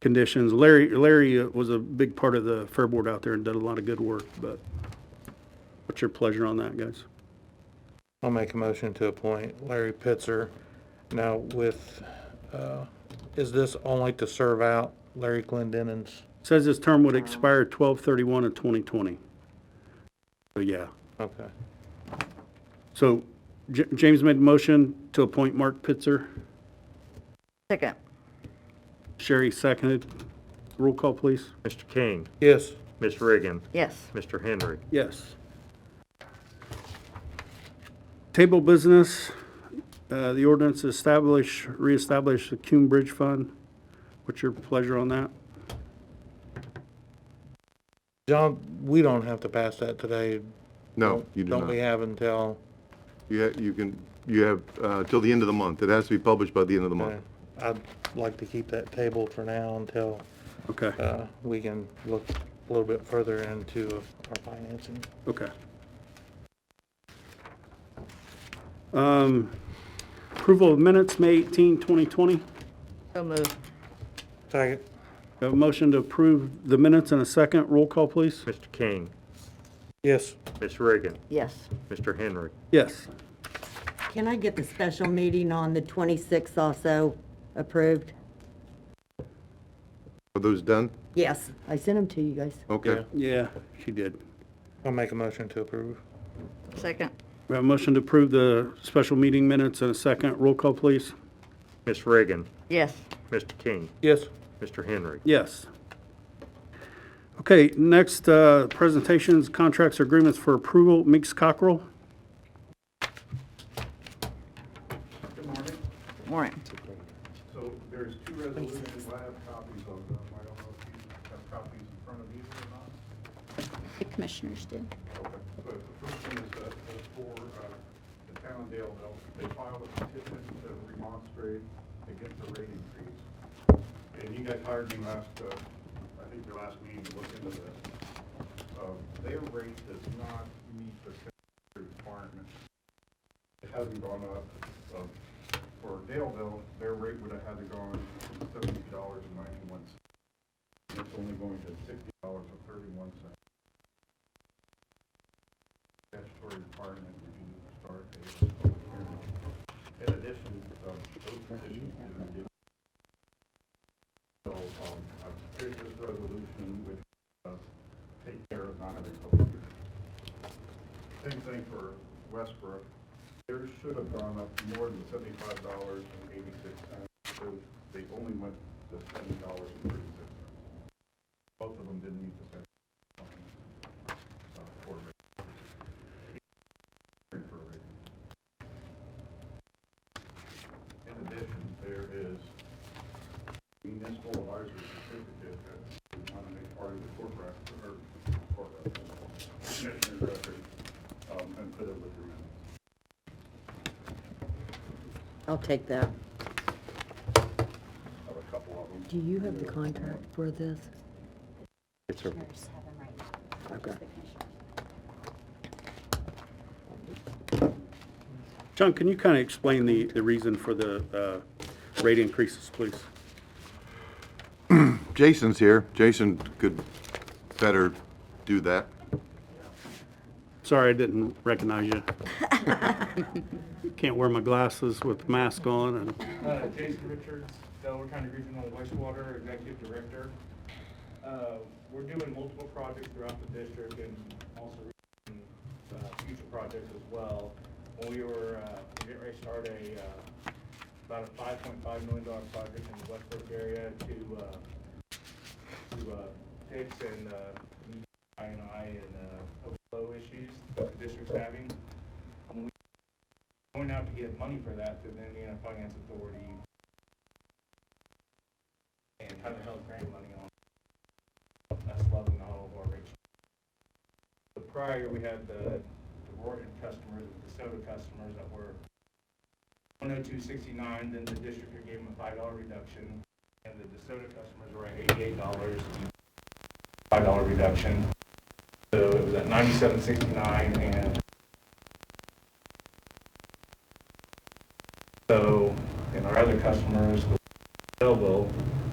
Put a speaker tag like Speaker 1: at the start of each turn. Speaker 1: conditions. Larry, Larry uh, was a big part of the Fair Board out there and did a lot of good work, but what's your pleasure on that, guys?
Speaker 2: I'll make a motion to appoint Larry Pitzer. Now with, uh, is this only to serve out Larry Glendenin's?
Speaker 1: Says his term would expire 12/31 of 2020. So, yeah.
Speaker 2: Okay.
Speaker 1: So J- James made a motion to appoint Mark Pitzer.
Speaker 3: Second.
Speaker 1: Sherry seconded. Roll call, please.
Speaker 4: Mr. King,
Speaker 2: Yes,
Speaker 4: Ms. Reagan,
Speaker 3: Yes.
Speaker 4: Mr. Henry.
Speaker 1: Yes. Table business, uh, the ordinance to establish, reestablish the Coon Bridge Fund. What's your pleasure on that?
Speaker 2: John, we don't have to pass that today.
Speaker 5: No, you do
Speaker 2: Don't we
Speaker 5: not.
Speaker 2: have until,
Speaker 5: You, ha- you can, you have, uh, till the end of the month. It has to be published by the end of the
Speaker 2: uh,
Speaker 5: month.
Speaker 2: I'd like to keep that table for now until,
Speaker 1: Okay,
Speaker 2: uh, we can look a little bit further into our financing.
Speaker 1: okay. Um, Approval of minutes, May 18, 2020.
Speaker 3: So moved.
Speaker 2: Second.
Speaker 1: Have a motion to approve the minutes in a second. Roll call, please.
Speaker 4: Mr. King,
Speaker 2: Yes,
Speaker 4: Ms. Reagan,
Speaker 3: Yes.
Speaker 4: Mr. Henry.
Speaker 1: Yes.
Speaker 6: Can I get the special meeting on the 26th also approved?
Speaker 5: Are those done?
Speaker 6: Yes, I sent them to you guys.
Speaker 5: Okay.
Speaker 2: Yeah.
Speaker 1: Yeah, she did.
Speaker 2: I'll make a motion to approve.
Speaker 3: Second.
Speaker 1: We have a motion to approve the special meeting minutes in a second. Roll call, please.
Speaker 4: Ms. Reagan,
Speaker 3: Yes.
Speaker 4: Mr. King,
Speaker 2: Yes,
Speaker 4: Mr. Henry.
Speaker 1: Yes. Okay, next, uh, presentations, contracts, agreements for approval, Meeks Cockrell.
Speaker 3: Warrant.
Speaker 7: So there's two resolutions, I have copies of them, I don't know if you have copies in front of you or not.
Speaker 8: The commissioners did.
Speaker 7: Okay. But the first one is, uh, is for, uh, the town of Dale Hill, they filed a petition to remonstrate against the rate increase. And you guys hired me last, uh, I think your last meeting to look into this. Um, their rate does not meet the statutory requirements. It hasn't gone up, um, for Daleville, their rate would have had to gone from seventy dollars and ninety-one cents. It's only going to sixty dollars and thirty-one cents statutory requirement would be to start a public hearing. In addition, um, those petitions didn't get. So, um, I've created this resolution which, uh, take care of not having public hearing. Same thing for Westbrook. Theirs should have gone up more than seventy-five dollars and eighty-six cents. They only went to seventy dollars and thirty-six cents. Both of them didn't meet the statute. Uh, for rate. In addition, there is municipal advisory certificate that is not a part of the corporate, or corporate, commissioner's record, um, and put it with your minutes.
Speaker 6: I'll take that.
Speaker 7: I have a couple of them.
Speaker 6: Do you have the contract for this?
Speaker 8: Commissioners have them right now.
Speaker 6: Okay.
Speaker 8: The commissioners.
Speaker 1: John, can you kind of explain the, the reason for the uh, rate increases, please?
Speaker 5: Jason's here. Jason could better do that.
Speaker 1: Sorry, I didn't recognize you. Can't wear my glasses with mask on and,
Speaker 9: Uh, Jason Richards, Delaware County Regional Wastewater Executive Director. Uh, We're doing multiple projects throughout the district and also uh, future projects as well. When we were, uh, getting ready to start a, uh, about a five point five million dollar project in the Westbrook area to, uh, to, uh, fix and, uh, I and I and, uh, overflow issues that the district's having. When we going out to get money for that through the Indiana Finance Authority and kind of held grant money on, that's loving all of our rate the prior, we had the, the Rorton customers, the soda customers that were one oh two sixty-nine, then the district gave them a five dollar reduction, and the DeSoto customers were at eighty-eight dollars, five dollar reduction. So it was at ninety-seven sixty-nine, and so, and our other customers, Belleville,